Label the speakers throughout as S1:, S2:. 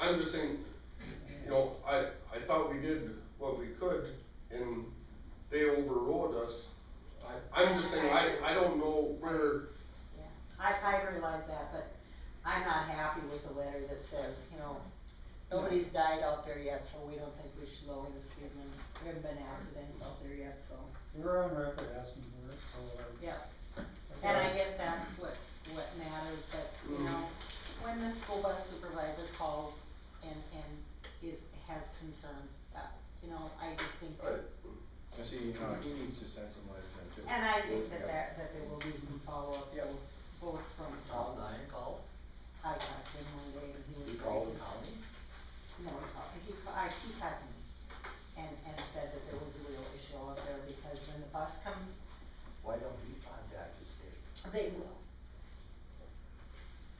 S1: I'm just saying, you know, I, I thought we did what we could and they overrode us. I, I'm just saying, I, I don't know where,
S2: I, I realize that, but I'm not happy with the letter that says, you know, nobody's died out there yet, so we don't think we should lower the speed limit. There haven't been accidents out there yet, so,
S3: We're on record asking for it, so. uh,
S2: yeah.
S3: I
S2: And I
S3: thought-
S2: guess that's what, what matters, but, you know, when the school bus supervisor calls and, and is, has concerns, that, you know, I just think that
S4: And
S1: I,
S4: see, no, he needs to send some letters in too.
S2: And I think that
S4: Yeah.
S2: there, that there will be some follow-up,
S4: Yeah.
S2: both, both from
S5: Call
S2: Tom.
S5: nine, call,
S2: I talked to him one day and he was.
S5: you call
S2: like,
S5: the county,
S2: No, he called, uh, he, ca- I, he called me and, and said that there was a real issue out there because when the bus comes,
S5: why don't we contact the state?
S2: they will,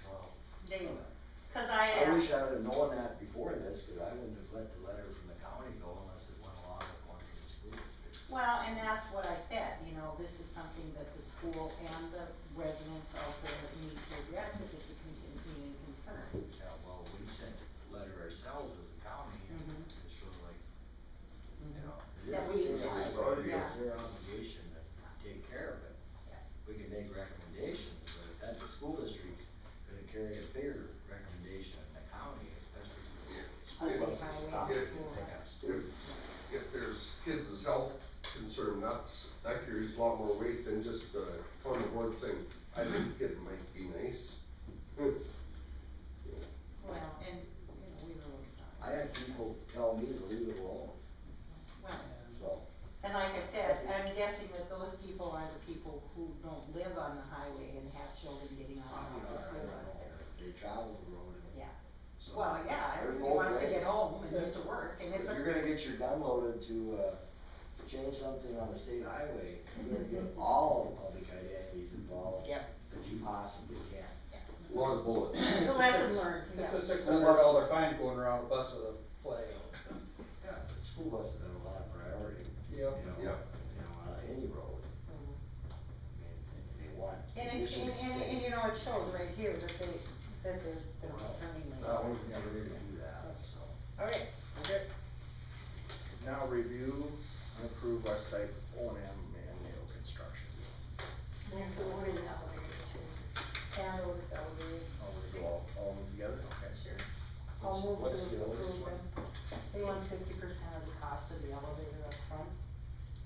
S5: Well,
S2: they will. Cause I
S5: I wish
S2: asked,
S5: I would've known that before this, cause I wouldn't have let the letter from the county go unless it went along with one of the school districts.
S2: well, and that's what I said, you know, this is something that the school and the residents out there need to address if it's a continuing concern.
S5: Yeah, well, we sent the letter ourselves as a county, and
S2: Mhm.
S5: it's sort of like, you know,
S2: That
S5: it
S2: we-
S5: is their
S2: yeah,
S5: responsibility,
S2: yeah.
S5: it's their obligation to take care of it.
S2: Yeah.
S5: We can make recommendations, but if that, the school district's gonna carry a bigger recommendation than the county, especially if the school
S2: Okay,
S5: bus
S2: by
S5: is
S2: way of
S5: stopped and
S2: school.
S5: pick up students.
S1: if there's kids' health concern, that's, that carries a lot more weight than just a on the board thing. I think it might be nice.
S5: Mm-hmm.
S2: Well, and, you know, we really
S5: I
S2: started.
S5: had people tell me to leave it alone,
S2: Well,
S5: so,
S2: And like I said, I'm guessing that those people are the people who don't live on the highway and have children getting
S5: I
S2: on
S5: don't
S2: Uh-huh, the school bus
S5: know,
S2: there.
S5: they travel the road and.
S2: Yeah.
S5: so-
S2: Well, yeah,
S5: There's
S2: everybody
S5: both
S2: wants to
S5: ways.
S2: get home and get to work, and
S5: If
S2: it's a.
S5: you're gonna get your gun loaded to, uh, change something on the state highway, you're gonna
S2: Mm-hmm.
S5: get all the public identities involved.
S2: Yep.
S5: That you possibly can.
S1: A lot of bullets.
S2: It's a lesson learned, yeah.
S3: It's a six hundred dollar fine going around a bus with a flag on
S5: Yeah, but school buses have a lot of priority,
S3: it.
S5: you
S3: Yep.
S5: know, you
S1: Yeah.
S5: know, on any road,
S2: Mhm.
S5: I mean, they want.
S2: And it's, and,
S5: conditions
S2: and,
S5: safe.
S2: and you know, it shows right here that they, that they're, they're friendly.
S5: That one's never "Oh, gonna do that, so.
S2: Alright,
S4: Okay. Now review and approve West Type O and M manual construction.
S6: And the order is elevated too. That order is elevated,
S4: Oh, we go all, all of them together, okay?
S6: sure.
S2: I'll move
S5: What's
S2: to
S5: the oldest
S2: approve
S5: one?
S2: them. They want fifty percent of the cost of the elevator up front.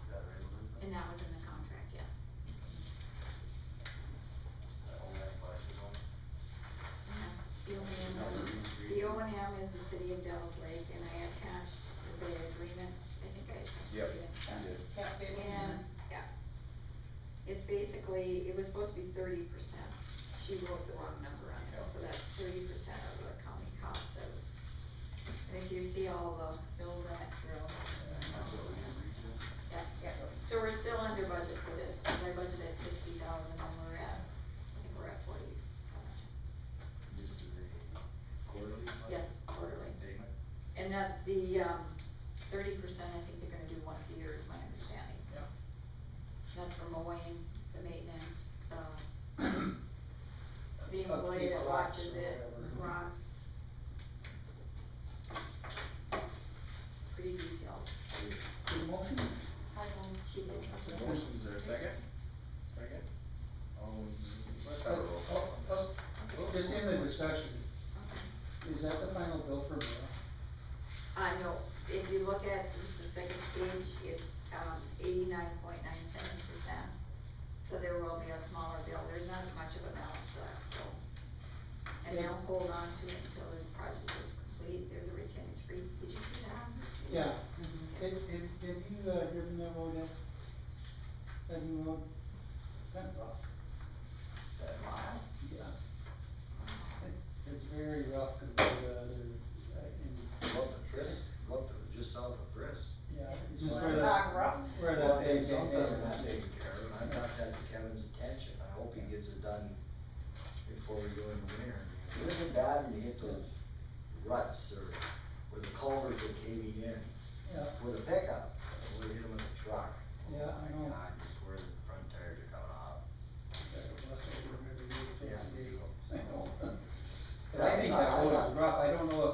S5: Is that right, Elizabeth?
S6: And that was in the contract, yes.
S5: Is that all that bus is on?
S6: And that's the O and M. The O and M is the city of Devils Lake, and I attached the agreement, I think I attached
S4: Yep,
S6: it.
S4: you did.
S2: Yeah, it was-
S6: And, yeah. It's basically, it was supposed to be thirty percent. She wrote the wrong number on it, so that's thirty percent of the county cost of. And if you see all the bills that through,
S5: And that's what we agreed to?
S6: yeah, yeah. So we're still under budget for this, because I budgeted sixty thousand and we're at, I think we're at forty-seven.
S5: This is a quarterly? bus?
S6: Yes, quarterly.
S5: Payment?
S6: And that the, um, thirty percent, I think they're gonna do once a year is my understanding.
S5: Yeah.
S6: That's for mowing, the maintenance, um, the employee that
S3: Upkeep, rocks,
S6: watches
S3: or
S6: it,
S3: whatever. Mm-hmm.
S6: rocks. Pretty detailed.
S3: Good motion?
S6: I will. She did.
S4: Motion's there, second? Second? Um, let's have a roll call on this.
S3: Oh, oh, Just in the discussion, is that the final bill for me?
S6: Uh, no, if you look at the second page, it's, um, eighty-nine point nine seven percent. So there will be a smaller bill, there's not much of a balance left, so. And they'll hold on to it until the project is complete, there's a retainage fee, did you see that?
S3: Yeah,
S2: Mhm.
S3: Have, have, have you, uh, driven that road yet? That new road? Kind of rough.
S5: That mile?
S3: Yeah. It's, it's very rough compared to other, uh, in,
S5: Go up to Chris, go up to, just south of Chris.
S3: yeah, it's
S2: Well,
S3: just where
S2: it's not
S3: that,
S2: rough.
S3: where
S5: Well,
S3: that thing
S5: it's
S3: came
S5: something
S3: in.
S5: not taken care of, and I brought that to Kevin's attention, I hope he gets it done before we go in the winter. It isn't bad when you hit those ruts or where the culverts are caving in
S3: Yeah,
S5: with a pickup, or hit them with a truck.
S3: Yeah, I know.
S5: My God, just where the front tires are coming off.
S3: that's where we're maybe,
S5: Yeah.
S3: I know. But I think that road is rough, I don't know if